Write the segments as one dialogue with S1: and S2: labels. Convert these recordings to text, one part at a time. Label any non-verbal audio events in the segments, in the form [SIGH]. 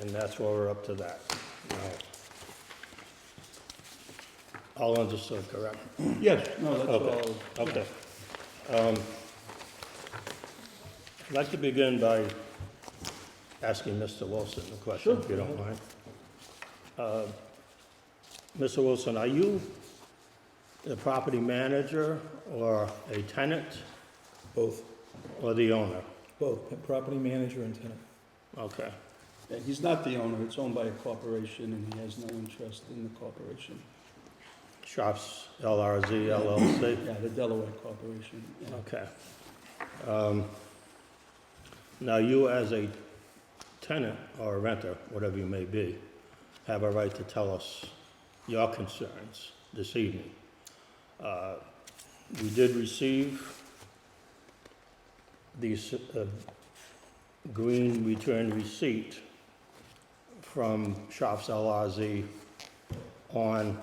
S1: and that's why we're up to that. now. All understood, correct?
S2: Yes, no, that's
S1: Okay,
S2: all.
S1: okay. Um, I'd like to begin by asking Mr. Wilson a question, if you don't mind. Uh, Mr. Wilson, are you the property manager or a tenant
S3: Both,
S1: or the owner?
S3: both, property manager and tenant.
S1: Okay,
S2: Yeah, he's not the owner, it's owned by a corporation, and he has no interest in the corporation.
S1: Shops LRZ LLC?
S2: Yeah, the Delaware Corporation. yeah.
S1: Okay. Um, Now, you as a tenant or renter, whatever you may be, have a right to tell us your concerns this evening. Uh, We did receive the s- uh, green return receipt from Shops LRZ on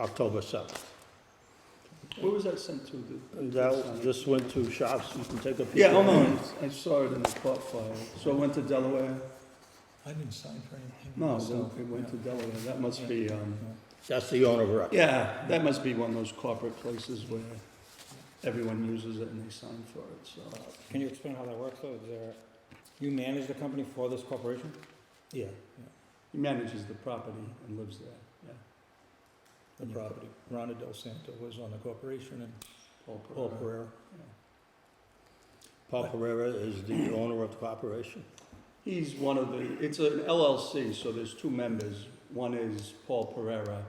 S1: October 7th.
S2: Where was that sent to? the-
S1: That, this went to shops, you can take a peek.
S2: Yeah, oh no, I saw it in the court file. So it went to Delaware?
S3: I didn't sign for anything.
S2: No,
S3: myself.
S2: it went to Delaware, that must be, um,
S1: That's the owner of record.
S2: yeah, that must be one of those corporate places where everyone uses it and they sign for it, so.
S4: Can you explain how that works, though? Is there, you manage the company for this corporation?
S3: Yeah,
S2: He manages the property and lives there, yeah.
S3: the property. Rhonda Del Santo was on the corporation and
S2: Paul Pereira.
S3: Paul Pereira.
S2: Yeah.
S1: Paul Pereira is the owner of the corporation.
S2: He's one of the, it's an LLC, so there's two members. One is Paul Pereira,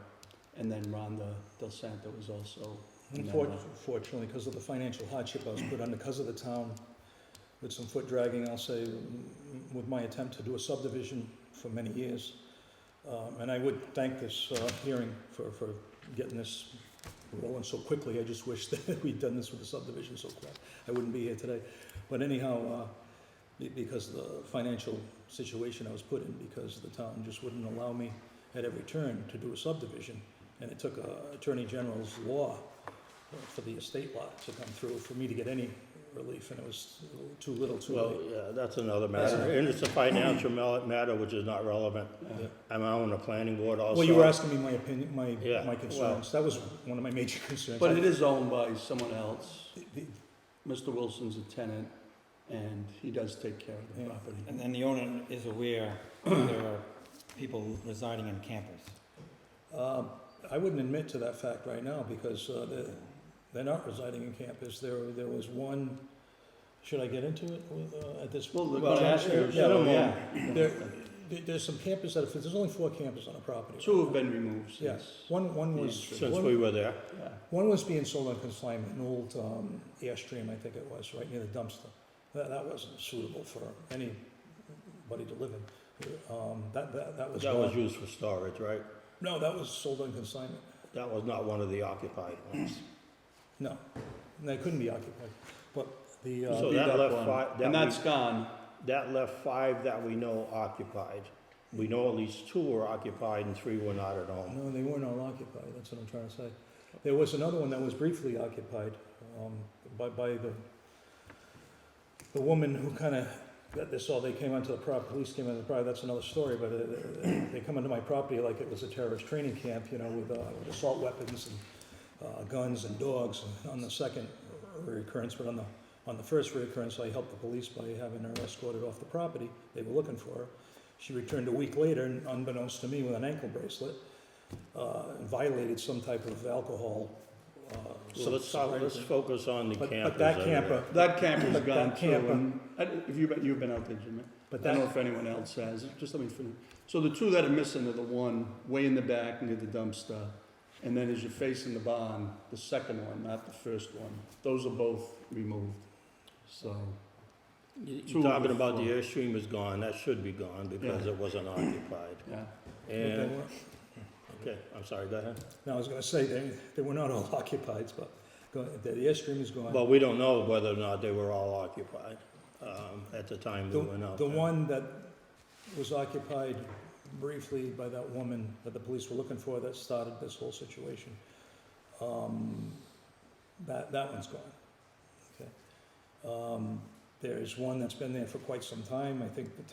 S2: and then Rhonda Del Santo is also. uh,
S3: Unfortunately, because of the financial hardship I was put under, because of the town, with some foot dragging, I'll say, m- with my attempt to do a subdivision for many years. Um, And I would thank this uh, hearing for, for getting this rolling so quickly. I just wish [LAUGHS] that we'd done this with the subdivision so quick. I wouldn't be here today. But anyhow, uh, be- because of the financial situation I was put in, because the town just wouldn't allow me at every turn to do a subdivision. And it took uh, Attorney General's law uh, for the estate lot to come through for me to get any relief, and it was too little, too
S1: Well,
S3: late.
S1: yeah, that's another matter, and it's a financial mel- matter which is not relevant.
S2: Yeah.
S1: I'm on the planning board also.
S3: Well, you were asking me my opinion, my,
S1: Yeah,
S3: my
S1: well-
S3: concerns. That was one of my major concerns.
S2: But
S3: I-
S2: it is owned by someone else.
S3: the- the-
S2: Mr. Wilson's a tenant, and he does take care of the
S3: Yeah.
S2: property.
S4: And then the owner is aware that there are people residing in campers.
S3: Um, I wouldn't admit to that fact right now because uh, they're, they're not residing in campus. There, there was one, should I get into it with, uh, at this?
S2: Well, the
S3: Well,
S2: question,
S3: yeah, well,
S2: yeah,
S3: There, there- there's some campus that, there's only four campus on a property.
S2: two have been removed
S3: Yeah.
S2: since.
S3: One, one was.
S1: Since
S3: one-
S1: we were there,
S2: Yeah.
S3: One was being sold on consignment, an old um, Airstream, I think it was, right near the dumpster. That, that wasn't suitable for anybody to live in. Um, That, that, that was.
S1: that was
S3: gone.
S1: used for storage, right?
S3: No, that was sold on consignment.
S1: That was not one of the occupied ones.
S3: No, they couldn't be occupied. But the, uh,
S1: So
S2: Leave
S1: that left
S2: one.
S1: fi- that
S2: And
S1: we-
S2: that's gone.
S1: That left five that we know occupied. We know at least two were occupied and three were not at home.
S3: no, they weren't all occupied, that's what I'm trying to say. There was another one that was briefly occupied um, by, by the, the woman who kind of got this all, they came onto the property, police came onto the property, that's another story, but uh, they come onto my property like it was a terrorist training camp, you know, with uh, with assault weapons and uh, guns and dogs on the second reoccurrence, but on the, on the first reoccurrence, I helped the police by having her escorted off the property. They were looking for her. She returned a week later, and unbeknownst to me, with an ankle bracelet, uh, and violated some type of alcohol. uh,
S1: So let's, talk- let's focus on the
S3: But-
S1: campers.
S3: But that
S1: over there.
S3: camper,
S2: That camper's
S3: But that
S2: gone too.
S3: camper-
S2: and I- If you've been, you've been out there, Jimmy.
S3: but
S2: I don't know
S3: that,
S2: if anyone else has, just let me finish. So the two that are missing are the one way in the back near the dumpster, and then as you're facing the barn, the second one, not the first one. Those are both removed, so.
S1: You-
S2: Two
S1: You're talking
S2: were
S1: about the
S2: full.
S1: airstream is gone, that should be gone because
S2: Yeah.
S1: it wasn't occupied.
S2: Yeah,
S3: but they
S1: And,
S3: weren't-
S1: okay, I'm sorry, go ahead.
S3: no, I was gonna say, they, they were not all [LAUGHS] occupied, but go- the airstream is gone.
S1: But we don't know whether or not they were all occupied um, at the time we
S3: The,
S1: went out
S3: the
S1: there.
S3: one that was occupied briefly by that woman that the police were looking for that started this whole situation, um, that, that one's gone, okay? Um, there's one that's been there for quite some time, I think the